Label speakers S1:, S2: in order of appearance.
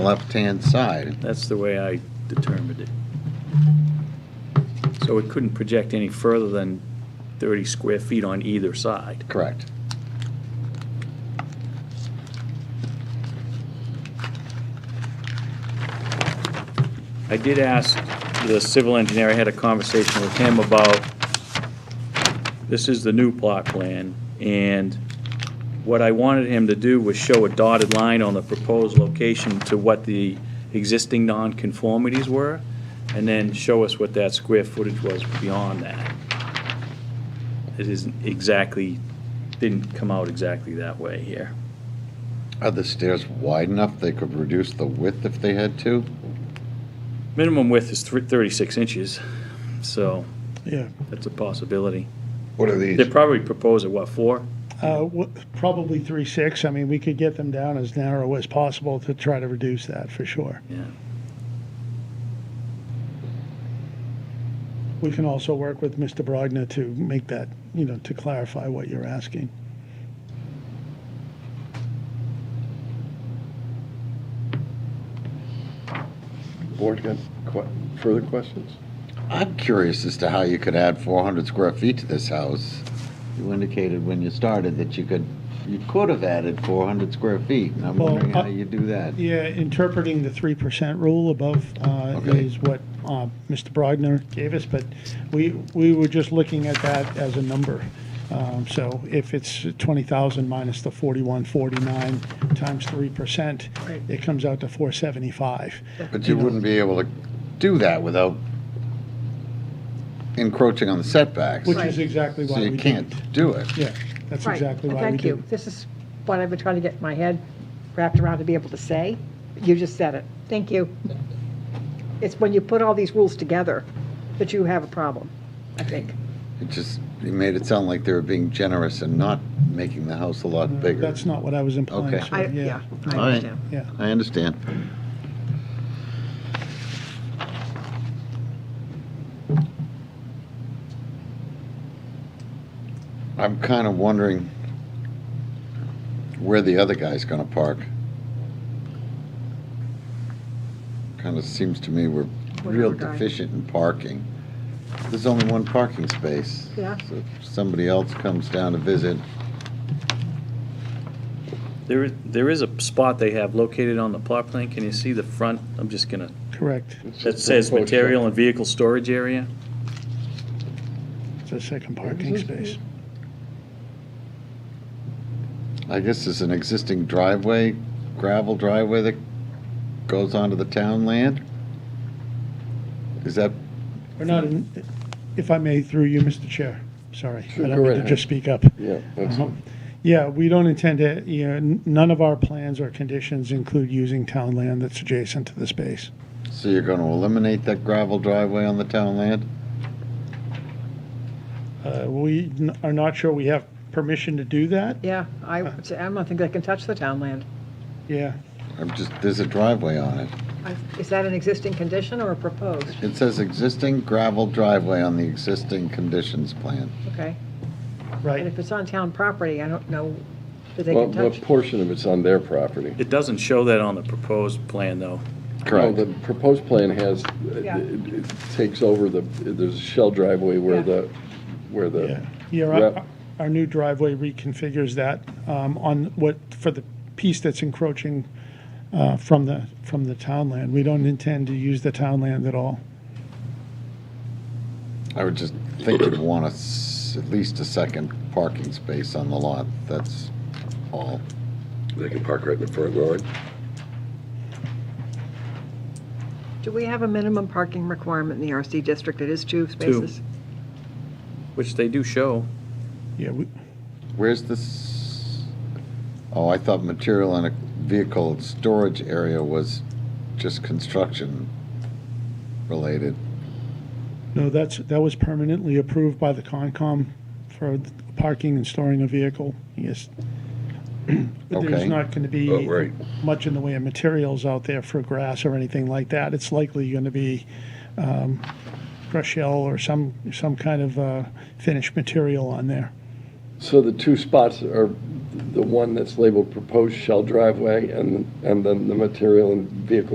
S1: left-hand side.
S2: That's the way I determined it. So it couldn't project any further than 30 square feet on either side.
S1: Correct.
S2: I did ask the civil engineer, I had a conversation with him about, this is the new plot plan, and what I wanted him to do was show a dotted line on the proposed location to what the existing nonconformities were, and then show us what that square footage was beyond that. It isn't exactly, didn't come out exactly that way here.
S1: Are the stairs wide enough they could reduce the width if they had to?
S2: Minimum width is thr- 36 inches, so
S3: Yeah,
S2: that's a possibility.
S4: What are
S2: They
S4: these?
S2: probably propose at what, four?
S3: uh, wha- probably three, six. I mean, we could get them down as narrow as possible to try to reduce that for sure.
S2: Yeah.
S3: We can also work with Mr. Brogna to make that, you know, to clarify what you're asking.
S4: Board got que- further questions?
S1: I'm curious as to how you could add 400 square feet to this house. You indicated when you started that you could, you could have added 400 square feet, and I'm
S3: Well,
S1: wondering how
S3: uh,
S1: you do that.
S3: Yeah, interpreting the three percent rule above uh,
S1: Okay.
S3: is what uh, Mr. Brogner gave us, but we, we were just looking at that as a number. Um, So if it's twenty thousand minus the forty-one, forty-nine times three percent, it comes out to four seventy-five.
S1: But you wouldn't be able to do that without encroaching on the setbacks.
S3: Which is exactly
S1: So
S3: why
S1: you
S3: we didn't.
S1: can't do it.
S3: Yeah, that's
S5: Right.
S3: exactly
S5: And
S3: why we
S5: Thank you.
S3: didn't.
S5: This is what I've been trying to get my head wrapped around to be able to say. You just said it. Thank you. It's when you put all these rules together that you have a problem, I think.
S1: It just, you made it sound like they were being generous and not making the house a lot bigger.
S3: Uh, That's not what I was implying,
S1: Okay.
S3: sir.
S5: I,
S3: yeah.
S5: yeah, I
S1: All right.
S5: understand.
S3: Yeah,
S1: I understand. I'm kind of wondering where the other guy's gonna park. Kind of seems to me we're
S5: What
S1: real
S5: other guy?
S1: deficient in parking. There's only one parking space.
S5: Yeah.
S1: So if somebody else comes down to visit,
S2: There, is- there is a spot they have located on the plot plan. Can you see the front? I'm just gonna,
S3: correct.
S2: that says material and vehicle storage area.
S3: It's a second parking
S5: Mm-hmm.
S3: space.
S1: I guess there's an existing driveway, gravel driveway that goes onto the town land? Is that,
S3: We're not, in- if I may, through you, Mr. Chair, sorry. I
S4: Sure, go
S3: don't mean
S4: right
S3: to
S4: ahead.
S3: just speak up.
S4: Yeah, that's,
S3: Uh-huh. Yeah, we don't intend to, you know, n- none of our plans or conditions include using town land that's adjacent to the space.
S1: so you're gonna eliminate that gravel driveway on the town land?
S3: Uh, We n- are not sure we have permission to do that.
S5: Yeah, I,
S3: Uh,
S5: would say- I don't think they can touch the town land.
S3: Yeah,
S1: I'm just, there's a driveway on it.
S5: I- Is that an existing condition or a proposed?
S1: It says existing gravel driveway on the existing conditions plan.
S5: Okay. And
S3: right.
S5: if it's on town property, I don't know that they
S4: well,
S5: can
S4: what
S5: touch.
S4: portion of it's on their property?
S2: It doesn't show that on the proposed plan, though.
S1: Correct.
S4: No, The proposed plan has, it-
S5: Yeah.
S4: it takes over the, there's a shell driveway where
S5: Yeah.
S4: the, where
S3: Yeah,
S4: the,
S3: yeah. our-
S4: Rep-
S3: our new driveway reconfigures that um, on what, for the piece that's encroaching uh, from the, from the town land. We don't intend to use the town land at all.
S1: I would just think you'd want a s at least a second parking space on the lot, that's all.
S6: They can park right in the front yard.
S5: Do we have a minimum parking requirement in the RC district? It is two spaces?
S2: Which they do show.
S3: Yeah, we-
S1: Where's this? Oh, I thought material and a vehicle storage area was just construction related.
S3: no, that's, that was permanently approved by the Concom for the parking and storing a vehicle, yes.
S1: Okay.
S3: There's not going to
S6: Oh,
S3: be
S6: right.
S3: much in the way of materials out there for grass or anything like that. It's likely going to be um, fresh shell or some, some kind of uh, finished material on there.
S4: So the two spots are the one that's labeled proposed shell driveway and, and then the material and vehicle